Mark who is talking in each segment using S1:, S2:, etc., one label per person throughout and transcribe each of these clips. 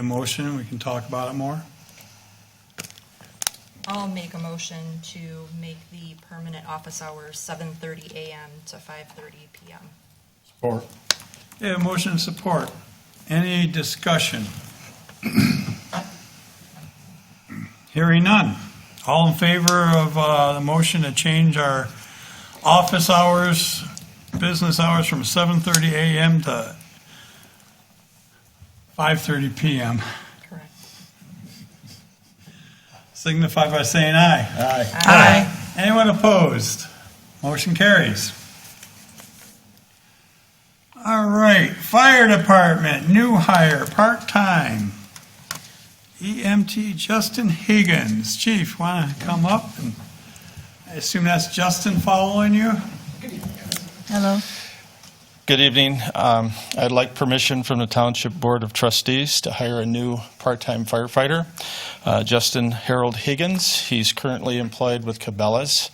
S1: a motion, we can talk about it more.
S2: I'll make a motion to make the permanent office hours seven thirty AM to five thirty PM.
S3: Or
S1: Yeah, motion and support. Any discussion? Hearing none. All in favor of uh, the motion to change our office hours, business hours from 7:30 a.m. to 5:30 p.m.?
S2: Correct.
S1: Signify by saying aye.
S3: Aye.
S2: Aye.
S1: Anyone opposed? Motion carries. All right, fire department, new hire, part-time. EMT Justin Higgins. Chief, want to come up? and I assume that's Justin following you?
S4: Good evening. Um, I'd like permission from the Township Board of Trustees to hire a new part-time firefighter, uh, Justin Harold Higgins. He's currently employed with Cabela's.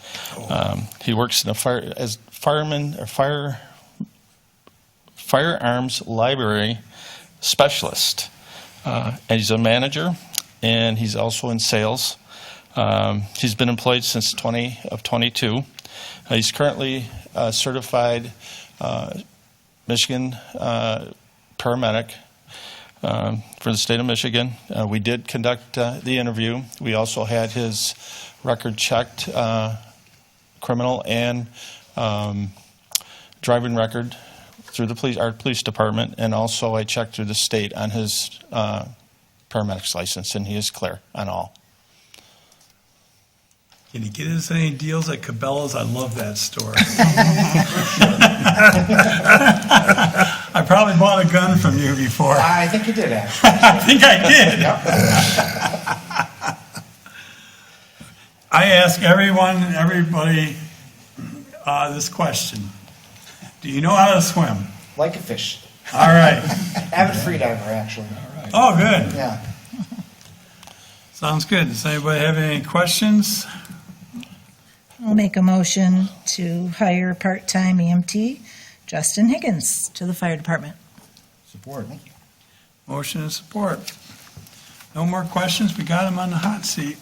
S4: Um, He works in the fire, as fireman, or fire, firearms library specialist. Uh, And he's a manager, and he's also in sales. Um, He's been employed since 20 of 22. Uh, He's currently uh, certified uh, Michigan uh, paramedic um, for the state of Michigan. Uh, we did conduct uh, the interview. We also had his record checked, uh, criminal and um, driving record through the police, our police department, and also I checked through the state on his uh, paramedic's license, and he is clear on all.
S1: Can you get us any deals at Cabela's? I love that store. I probably bought a gun from you before.
S3: I think you did, actually.
S1: I think I did. I ask everyone, everybody, uh, this question. Do you know how to swim?
S3: Like a fish.
S1: All right.
S3: Avid freediver, actually.
S1: Oh, good.
S3: Yeah.
S1: Sounds good. Does anybody have any questions?
S5: I'll make a motion to hire part-time EMT Justin Higgins to the fire department.
S3: Support.
S1: Motion and support. No more questions? We got him on the hot seat.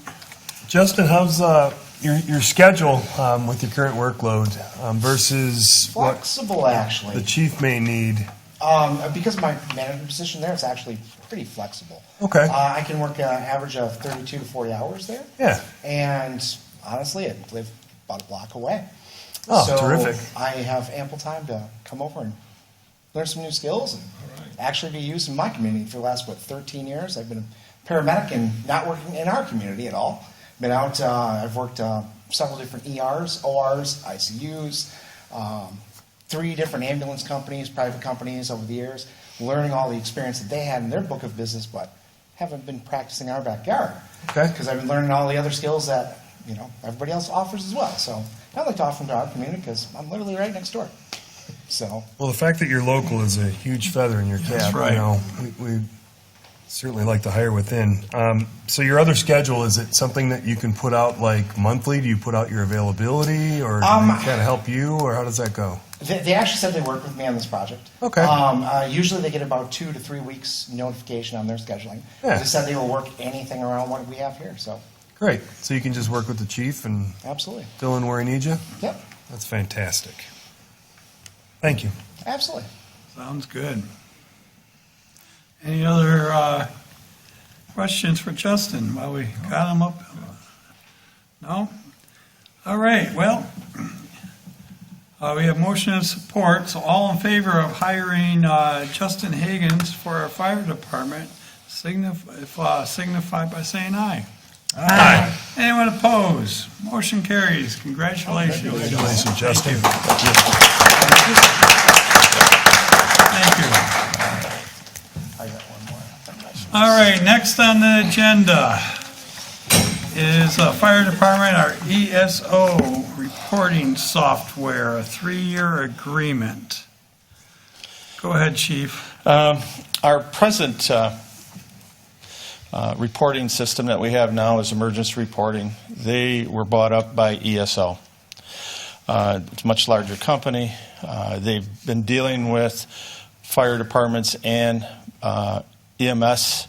S6: Justin, how's uh, your, your schedule um, with your current workload um, versus what
S3: Flexible, actually.
S6: the chief may need?
S3: Um, because my manager position there is actually pretty flexible.
S6: Okay.
S3: Uh, I can work an average of 32 to 40 hours there.
S6: Yeah.
S3: And honestly, I live about a block away.
S6: Oh,
S3: so
S6: terrific.
S3: I have ample time to come over and learn some new skills and actually be used in my community for the last, what, 13 years? I've been a paramedic and not working in our community at all. Been out, uh, I've worked uh, several different ERs, ORs, ICUs, um, three different ambulance companies, private companies over the years, learning all the experience that they had in their book of business, but haven't been practicing our backyard.
S6: Okay.
S3: Because I've been learning all the other skills that, you know, everybody else offers as well. So I'd like to offer them to our community because I'm literally right next door. So
S6: Well, the fact that you're local is a huge feather in your cap.
S1: That's right.
S6: You know, we, we certainly like to hire within. Um, so your other schedule is it something that you can put out like monthly? Do you put out your availability, or do
S3: Um,
S6: they kind of help you, or how does that go?
S3: They, they actually said they work with me on this project.
S6: Okay.
S3: Um, uh, usually they get about two to three weeks notification on their scheduling.
S6: Yeah.
S3: They said they will work anything around what we have here. So
S6: Great. So you can just work with the chief and
S3: absolutely,
S6: fill in where he needs you.
S3: yep,
S6: That's fantastic. Thank you.
S3: absolutely.
S1: Sounds good. Any other uh, questions for Justin while we got him up? No? All right, well, uh, we have motion and support, so all in favor of hiring uh, Justin Higgins for our fire department, signify if, uh, signify by saying aye. Aye. Anyone opposed? Motion carries. Congratulations.
S6: Congratulations, Justin.
S1: Thank you.
S3: I got one more. I think I should-
S1: All right, next on the agenda is uh, Fire Department, our ESO reporting software, a three-year agreement. Go ahead, Chief.
S4: Um, Our present uh, uh, reporting system that we have now is emergency reporting. They were bought up by ESO. Uh, It's a much larger company. Uh, They've been dealing with fire departments and uh, EMS